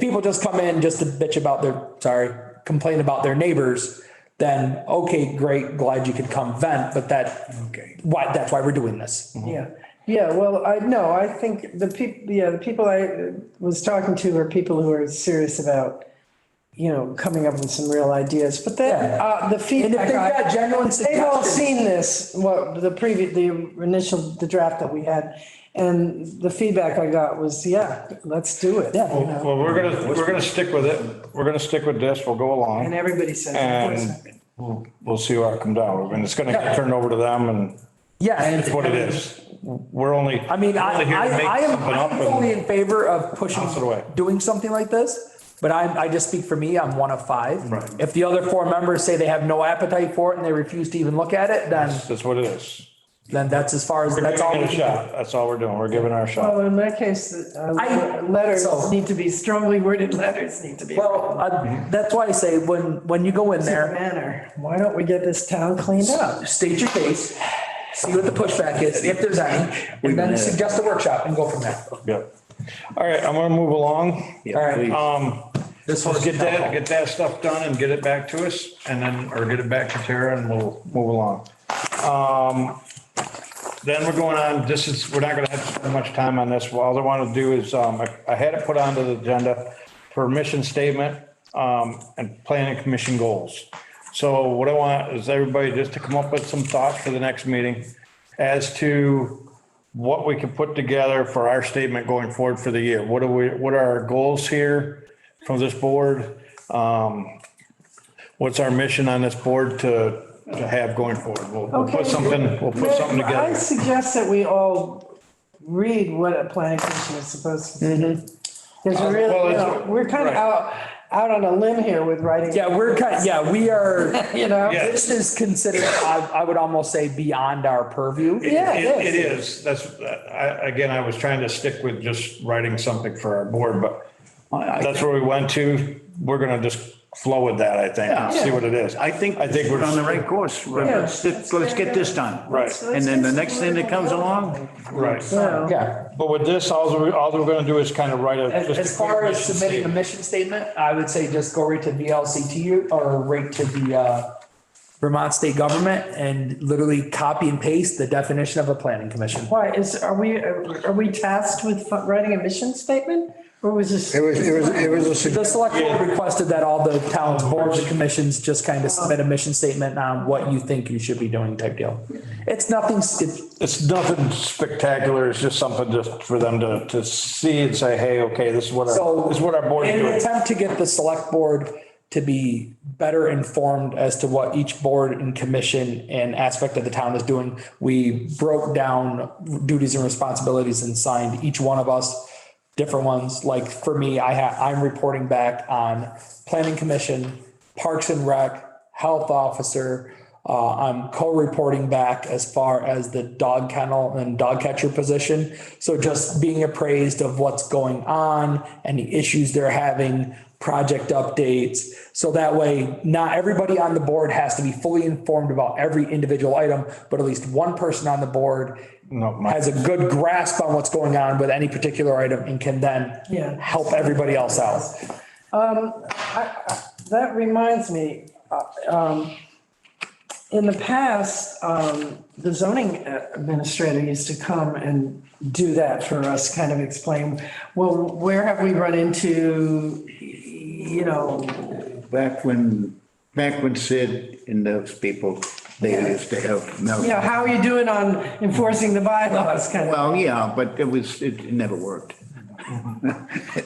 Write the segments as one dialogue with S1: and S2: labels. S1: people just come in just to bitch about their, sorry, complain about their neighbors, then, okay, great, glad you could come vent, but that,
S2: Okay.
S1: why, that's why we're doing this.
S3: Yeah, yeah, well, I, no, I think the people, yeah, the people I uh, was talking to are people who are serious about, you know, coming up with some real ideas, but then,
S1: Yeah.
S3: uh,
S1: And
S3: the
S1: if
S3: feedback.
S1: they've got
S3: I-
S1: genuine
S3: They've all
S1: suggestions.
S3: seen this, what, the previous, the initial, the draft that we had, and the feedback I got was, yeah, let's do it.
S1: Yeah.
S3: you know?
S4: Well, we're gonna, we're gonna stick with it. We're gonna stick with this. We'll go
S3: And
S4: along
S3: everybody says.
S4: and we'll, we'll see where it comes down. I mean, it's gonna get turned over to them and
S1: Yeah. and
S4: it's what it is. We're only.
S1: I mean, I,
S4: only here to
S1: I,
S4: make
S1: I am,
S4: something up
S1: I'm
S4: and-
S1: fully in favor of pushing,
S4: Bounce it away.
S1: doing something like this, but I, I just speak for me, I'm one of five. Right. If the other four members say they have no appetite for it and they refuse to even look at it, then,
S4: That's what it is.
S1: then that's as far as,
S4: We're
S1: that's
S4: giving
S1: all.
S4: it
S1: we can
S4: a
S1: do.
S4: shot. That's all we're doing. We're giving our shot.
S3: Well, in that case, uh,
S1: I-
S3: letters
S1: so-
S3: need to be strongly worded, letters need to be.
S1: Well,
S4: Mm-hmm.
S1: I- that's why I say, when, when you go in there,
S3: manner. Why don't we get this town cleaned up?
S1: state your case, see what the pushback is, if there's any, and then suggest a workshop and go from there.
S4: Yep. All right, I'm gonna move along.
S1: All right,
S2: Oh,
S4: Um,
S1: this
S4: let's
S1: one's
S4: get that, get that stuff done and get it back to us and then, or get it back to Tara and we'll move along. Um, Then we're going on, this is, we're not gonna have to spend much time on this. All I want to do is, um, I- I had it put onto the agenda for mission statement, um, and planning commission goals. So what I want is everybody just to come up with some thoughts for the next meeting as to what we can put together for our statement going forward for the year. What are we, what are our goals here from this board? Um, What's our mission on this board to to have going forward? We'll- We'll put
S3: Okay.
S4: something, we'll put something
S3: I
S4: together.
S3: suggest that we all read what a planning commission is supposed to do. Because we're
S4: Mm-hmm. Um, well,
S3: really, you
S4: it's-
S3: know, we're kind of
S4: right.
S3: out, out on a limb here with writing,
S1: Yeah, we're kind, yeah, we are,
S3: you know?
S4: Yeah.
S1: this is considered, I, I would almost say beyond our purview.
S3: Yeah,
S4: It-
S3: it
S4: It
S3: is.
S4: is, that's, I, again, I was trying to stick with just writing something for our board, but that's where we went to. We're gonna just flow with that, I think, and see what it is.
S2: I think,
S4: I think we're
S2: on the right course. Let's, let's get this done.
S4: Right.
S2: And then the next thing that comes along,
S4: Right.
S3: So,
S1: Yeah,
S4: But with this, all we're, all we're gonna do is kind of write a.
S1: as,
S4: just a
S1: as far
S4: quick
S1: as
S4: mission
S1: submitting a
S4: statement.
S1: mission statement, I would say just go right to VLCT or right to the, uh, Vermont State Government and literally copy and paste the definition of a planning commission.
S3: Why, is, are we, are we tasked with fu- writing a mission statement? Or was this?
S5: It was, it was, it was a
S1: The
S5: suggestion.
S1: select board requested that all the towns, boards and commissions just kind of submit a mission statement on what you think you should be doing type deal. It's nothing, it's,
S4: It's nothing spectacular. It's just something just for them to, to see and say, hey, okay, this is what
S1: so.
S4: our, this is what our board is
S1: In an
S4: doing.
S1: attempt to get the select board to be better informed as to what each board and commission and aspect of the town is doing, we broke down duties and responsibilities and signed each one of us different ones. Like for me, I ha I'm reporting back on planning commission, parks and rec, health officer. Uh, I'm co-reporting back as far as the dog kennel and dog catcher position. So just being appraised of what's going on, any issues they're having, project updates. So that way, not everybody on the board has to be fully informed about every individual item, but at least one person on the board
S4: No, my-
S1: has a good grasp on what's going on with any particular item and can then
S3: Yeah.
S1: help everybody else out.
S3: That reminds me, uh, um, in the past, um, the zoning administrator used to come and do that for us, kind of explain, well, where have we run into, you know,
S2: back when, back when Sid and those people, they used to have. no-
S3: you know, how are you doing on enforcing the bylaws kind of?
S2: Well, yeah, but it was, it never worked.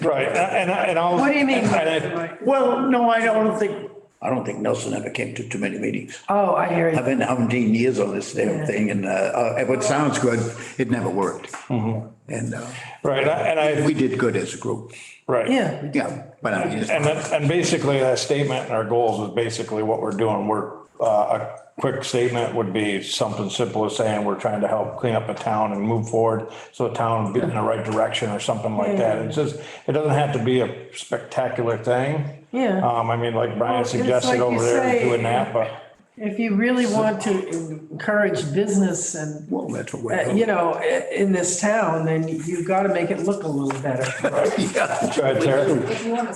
S4: Right, and, and I'll.
S3: What do you mean?
S4: and I-
S2: Well, no, I don't think, I don't think Nelson ever came to too many meetings.
S3: Oh, I hear
S2: I've
S3: you.
S2: been seventeen years on this damn thing and, uh, uh, what sounds good, it never worked. And, uh,
S4: Right, and I,
S2: we did good as a group.
S4: right.
S3: Yeah,
S2: Yeah, but I just.
S4: And, that- and basically that statement and our goals is basically what we're doing. We're, uh, a quick statement would be something simple as saying, we're trying to help clean up a town and move forward. So the town be in the right direction or something like that. It's just, it doesn't have to be a spectacular thing.
S3: Yeah.
S4: Um, I mean, like Brian
S3: it's
S4: suggested
S3: like you
S4: over there,
S3: say-
S4: doing that, but
S3: If you really want to encourage business and,
S2: Well, that's what
S3: uh,
S2: we're.
S3: you know, i- in this town, then you've got to make it look a little better.
S2: Yeah.
S4: Go ahead, Tara.
S5: If you want to